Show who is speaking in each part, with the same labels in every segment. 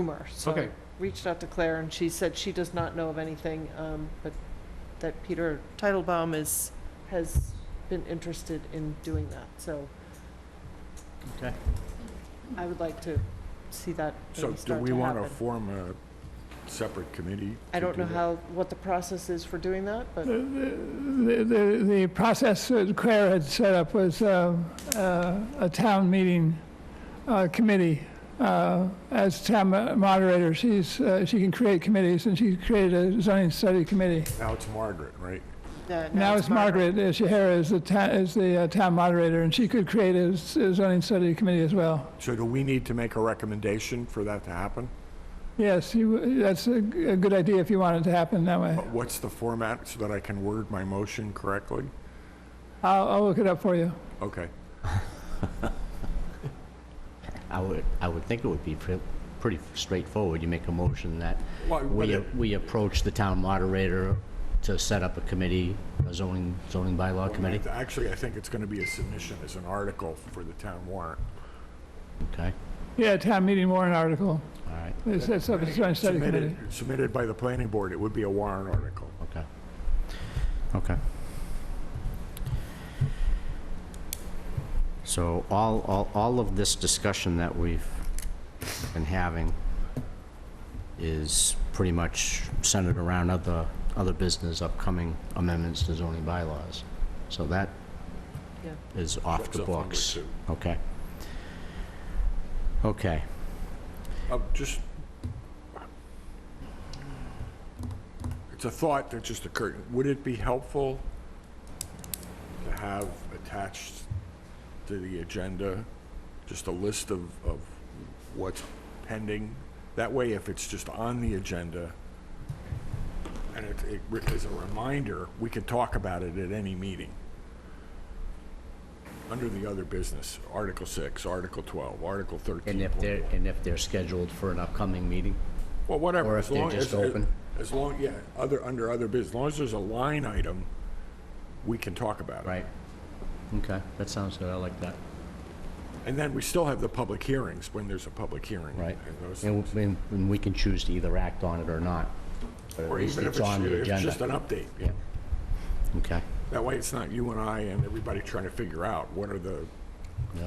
Speaker 1: rumor. So
Speaker 2: Okay,
Speaker 1: reached out to Claire and she said she does not know of anything, um, but that Peter Titlebaum is, has been interested in doing that, so.
Speaker 2: Okay.
Speaker 1: I would like to see that
Speaker 3: So
Speaker 1: maybe
Speaker 3: do
Speaker 1: start
Speaker 3: we
Speaker 1: to
Speaker 3: want
Speaker 1: happen.
Speaker 3: to form a separate committee?
Speaker 1: I
Speaker 3: to
Speaker 1: don't
Speaker 3: do
Speaker 1: know
Speaker 3: that?
Speaker 1: how, what the process is for doing that, but,
Speaker 4: The- The, the- the process that Claire had set up was uh, uh, a town meeting uh, committee. Uh, As town mo- moderator, she's, uh, she can create committees, and she created a zoning study committee.
Speaker 3: Now it's Margaret, right?
Speaker 1: yeah,
Speaker 4: Now it's Margaret uh, Shahara is the town, is the uh, town moderator, and she could create a s- a zoning study committee as well.
Speaker 3: So do we need to make a recommendation for that to happen?
Speaker 4: Yes, you- that's a g- a good idea if you want it to happen that way.
Speaker 3: But What's the format so that I can word my motion correctly?
Speaker 4: I'll, I'll look it up for you.
Speaker 3: Okay,
Speaker 5: I would, I would think it would be pre- pretty straightforward. You make a motion that
Speaker 3: Well, but
Speaker 5: we,
Speaker 3: it-
Speaker 5: we approach the town moderator to set up a committee, a zoning, zoning bylaw committee,
Speaker 3: actually, I think it's going to be a submission as an article for the town warrant.
Speaker 5: okay?
Speaker 4: Yeah, town meeting warrant article.
Speaker 5: All right,
Speaker 4: They set up a zoning study committee.
Speaker 3: Submitted, submitted by the planning board, it would be a warrant article.
Speaker 5: okay. Okay. So all, all, all of this discussion that we've been having is pretty much centered around other, other business, upcoming amendments to zoning bylaws. So that
Speaker 1: Yeah.
Speaker 5: is off the
Speaker 3: Something like
Speaker 5: books.
Speaker 3: that.
Speaker 5: Okay. Okay,
Speaker 3: Uh, just, it's a thought that just occurred. Would it be helpful to have attached to the agenda, just a list of, of what's pending? That way, if it's just on the agenda, and it, it re- is a reminder, we could talk about it at any meeting. Under the other business, Article 6, Article 12, Article 13.
Speaker 5: and if
Speaker 3: point
Speaker 5: they're,
Speaker 3: one.
Speaker 5: and if they're scheduled for an upcoming meeting?
Speaker 3: Well, whatever.
Speaker 5: Or
Speaker 3: as
Speaker 5: if they're
Speaker 3: long
Speaker 5: just
Speaker 3: as- as-
Speaker 5: open.
Speaker 3: As long, yeah, other, under other biz, as long as there's a line item, we can talk about it.
Speaker 5: Right. Okay, that sounds good, I like that.
Speaker 3: And then we still have the public hearings when there's a public hearing.
Speaker 5: Right.
Speaker 3: and those-
Speaker 5: And, we- and we can choose to either act on it or not. But at
Speaker 3: Or
Speaker 5: least
Speaker 3: even if
Speaker 5: it's
Speaker 3: it's,
Speaker 5: on the
Speaker 3: if it's just
Speaker 5: agenda.
Speaker 3: an update.
Speaker 5: Yeah. Okay,
Speaker 3: That way, it's not you and I and everybody trying to figure out what are the,
Speaker 5: yeah,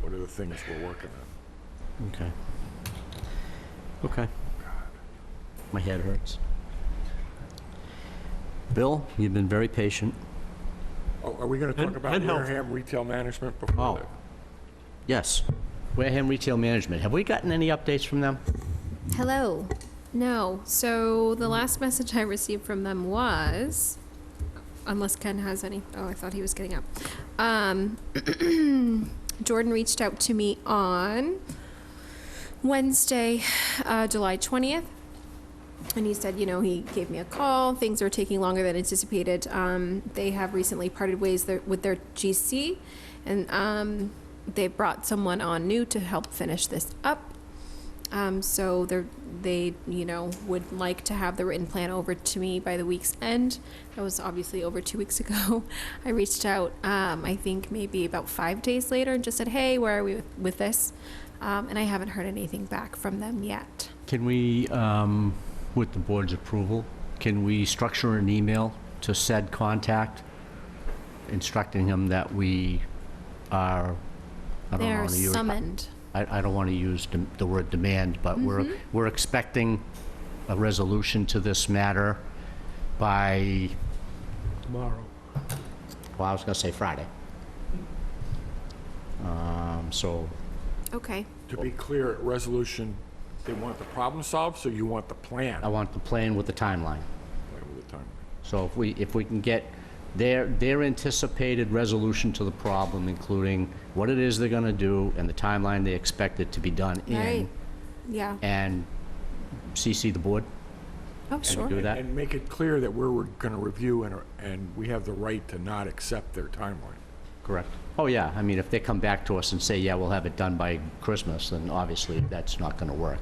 Speaker 3: what are the things we're working on.
Speaker 5: okay. Okay. My head hurts. Bill, you've been very patient.
Speaker 3: Oh, Are we going to talk
Speaker 2: And-
Speaker 3: about
Speaker 2: and health.
Speaker 3: Wareham retail management before
Speaker 5: Oh.
Speaker 3: that?
Speaker 5: Yes, Wareham Retail Management, have we gotten any updates from them?
Speaker 6: Hello. No. So the last message I received from them was, unless Ken has any. Oh, I thought he was getting up. Um, Jordan reached out to me on Wednesday, uh, July 20th. And he said, you know, he gave me a call. Things are taking longer than anticipated. Um, they have recently parted ways their, with their GC, and um, they brought someone on new to help finish this up. Um, so they're, they, you know, would like to have the written plan over to me by the week's end. That was obviously over two weeks ago. I reached out, um, I think maybe about five days later and just said, hey, where are we with, with this? Um, and I haven't heard anything back from them yet.
Speaker 5: Can we, um, with the board's approval, can we structure an email to said contact instructing him that we are, I don't
Speaker 6: They're
Speaker 5: want to use,
Speaker 6: summoned.
Speaker 5: I, I don't want to use dem- the word demand, but we're, we're expecting a resolution to this matter by,
Speaker 2: tomorrow.
Speaker 5: well, I was going to say Friday. Um, so,
Speaker 6: Okay.
Speaker 3: To be clear, resolution, they want the problem solved, so you want the plan
Speaker 5: I want the plan with the timeline.
Speaker 3: over the time.
Speaker 5: So if we, if we can get their, their anticipated resolution to the problem, including what it is they're gonna do and the timeline they expect it to be done
Speaker 6: Right.
Speaker 5: in,
Speaker 6: Yeah.
Speaker 5: and CC the board,
Speaker 6: Oh, sure.
Speaker 5: do that?
Speaker 3: And make it clear that we're going to review and, and we have the right to not accept their timeline.
Speaker 5: Correct. Oh, yeah, I mean, if they come back to us and say, yeah, we'll have it done by Christmas, then obviously that's not gonna work.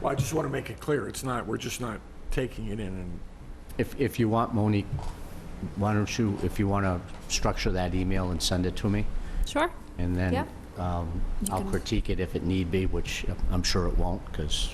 Speaker 3: Well, I just want to make it clear, it's not, we're just not taking it in and,
Speaker 5: If, if you want, Monique, why don't you, if you wanna structure that email and send it to me,
Speaker 6: Sure.
Speaker 5: and then
Speaker 6: Yep.
Speaker 5: Um,
Speaker 6: You
Speaker 5: I'll
Speaker 6: can-
Speaker 5: critique it if it need be, which I'm sure it won't, because